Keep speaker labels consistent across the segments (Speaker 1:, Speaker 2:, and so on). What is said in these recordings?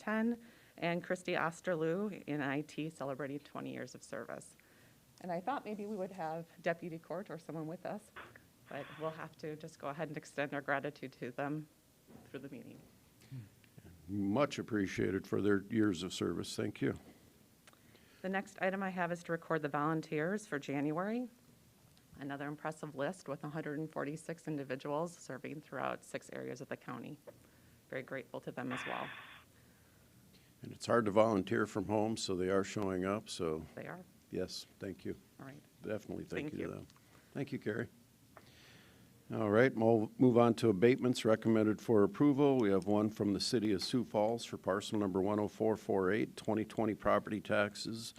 Speaker 1: 10, and Christy Osterloo in IT celebrating 20 years of service. And I thought maybe we would have Deputy Court or someone with us, but we'll have to just go ahead and extend our gratitude to them through the meeting.
Speaker 2: Much appreciated for their years of service. Thank you.
Speaker 1: The next item I have is to record the volunteers for January. Another impressive list with 146 individuals serving throughout six areas of the county. Very grateful to them as well.
Speaker 2: And it's hard to volunteer from home, so they are showing up. So,
Speaker 1: They are,
Speaker 2: yes, thank you.
Speaker 1: all right.
Speaker 2: Definitely thank
Speaker 1: Thank
Speaker 2: you to
Speaker 1: you.
Speaker 2: them. Thank you, Carrie. All right, we'll move on to abatements recommended for approval. We have one from the City of Sioux Falls for parcel number 10448, 2020 property taxes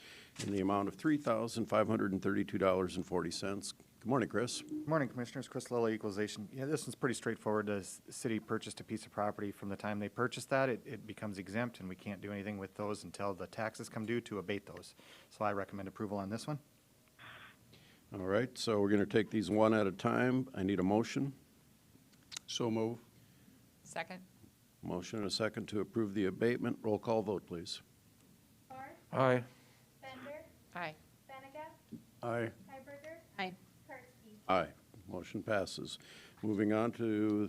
Speaker 2: in the amount of $3,532.40. Good morning, Chris.
Speaker 3: Morning, Commissioners. Chris Lilly, Equalization. Yeah, this one's pretty straightforward. The s- city purchased a piece of property. From the time they purchased that, it, it becomes exempt, and we can't do anything with those until the taxes come due to abate those. So I recommend approval on this one.
Speaker 2: All right, so we're going to take these one at a time. I need a motion. So move.
Speaker 4: Second.
Speaker 2: Motion and a second to approve the abatement. Roll call vote, please.
Speaker 5: Barr,
Speaker 6: Aye.
Speaker 5: Bender,
Speaker 4: Aye.
Speaker 5: Benega,
Speaker 2: Aye.
Speaker 5: Hiberger,
Speaker 4: Aye.
Speaker 5: Karski.
Speaker 2: Aye. Motion passes. Moving on to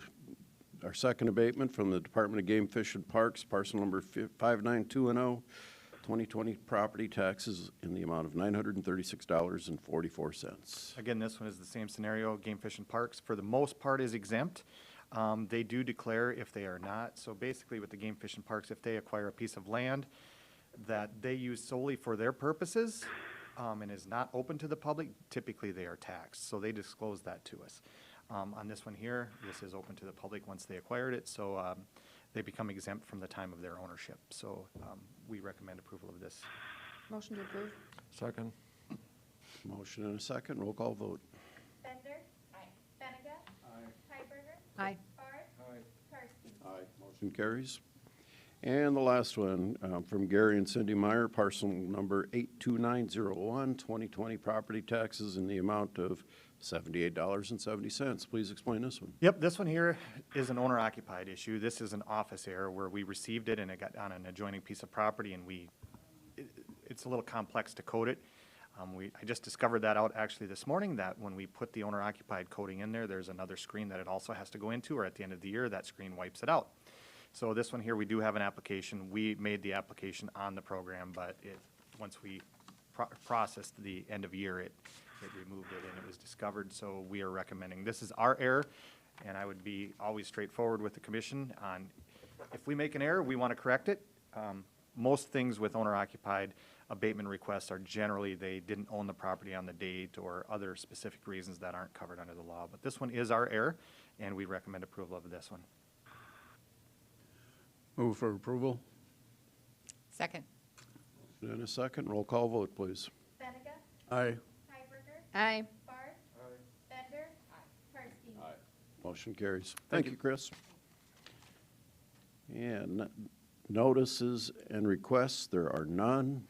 Speaker 2: our second abatement from the Department of Game Fish and Parks, parcel number 59210, 2020 oh, property taxes in the amount of $936.44.
Speaker 3: Again, this one is the same scenario. Game Fish and Parks, for the most part, is exempt. Um, They do declare if they are not. So basically with the Game Fish and Parks, if they acquire a piece of land that they use solely for their purposes um, and is not open to the public, typically they are taxed. So they disclose that to us. Um, On this one here, this is open to the public once they acquired it, so um, they become exempt from the time of their ownership. So um, we recommend approval of this.
Speaker 4: Motion to approve.
Speaker 6: Second.
Speaker 2: Motion and a second. Roll call vote.
Speaker 5: Bender. Aye. Benega. Aye. Hiberger,
Speaker 4: Aye.
Speaker 5: Barr. Aye. Karski.
Speaker 2: Aye. Motion carries. And the last one um, from Gary and Cindy Meyer, parcel number 82901, 2020 property taxes in the amount of $78.70. Please explain this one.
Speaker 3: Yep, this one here is an owner occupied issue. This is an office error where we received it and it got on an adjoining piece of property and we, it- it's a little complex to code it. Um, we, I just discovered that out actually this morning, that when we put the owner occupied coding in there, there's another screen that it also has to go into, or at the end of the year, that screen wipes it out. So this one here, we do have an application. We made the application on the program, but it, once we pro- processed the end of year, it, it removed it and it was discovered. So we are recommending, this is our error, and I would be always straightforward with the commission on, if we make an error, we want to correct it. Um, Most things with owner-occupied abatement requests are generally, they didn't own the property on the date or other specific reasons that aren't covered under the law. But this one is our error, and we recommend approval of this one.
Speaker 6: Move for approval?
Speaker 4: Second.
Speaker 2: And a second, roll call vote, please.
Speaker 5: Benega.
Speaker 6: Aye.
Speaker 5: Hiberger,
Speaker 4: Aye.
Speaker 5: Barr. Aye. Bender. Aye. Karski.
Speaker 2: Motion carries. Thank you, Chris. And notices and requests, there are none.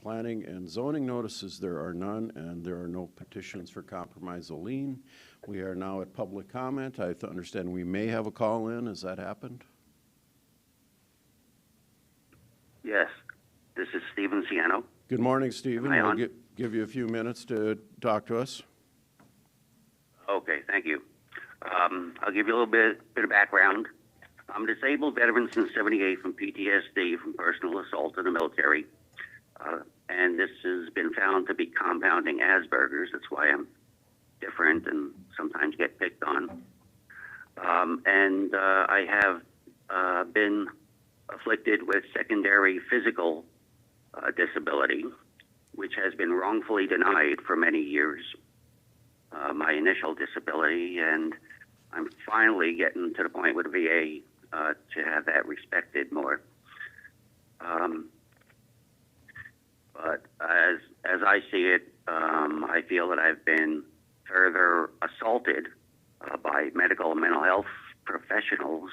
Speaker 2: Planning and zoning notices, there are none, and there are no petitions for compromise or lien. We are now at public comment. I th- understand we may have a call in. Has that happened?
Speaker 7: Yes, this is Steven Ciano.
Speaker 2: Good morning, Stephen.
Speaker 7: Hi,
Speaker 2: We'll
Speaker 7: Hon.
Speaker 2: gi- give you a few minutes to talk to us.
Speaker 7: Okay, thank you. Um, I'll give you a little bit, bit of background. I'm a disabled veteran since 78 from PTSD from personal assault in the military. Uh, and this has been found to be compounding Asperger's. That's why I'm different and sometimes get picked on. Um, and uh, I have uh, been afflicted with secondary physical uh, disability, which has been wrongfully denied for many years. uh, my initial disability, and I'm finally getting to the point with VA uh, to have that respected more. Um, but as as I see it, um, I feel that I've been further assaulted uh, by medical and mental health professionals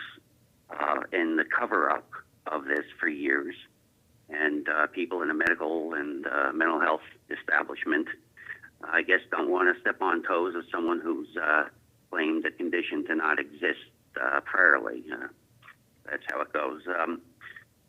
Speaker 7: uh, in the cover up of this for years, and uh, people in the medical and uh, mental health establishment. I guess don't want to step on toes of someone who's uh, claimed a condition to not exist uh, priorly. Uh, that's how it goes. Um,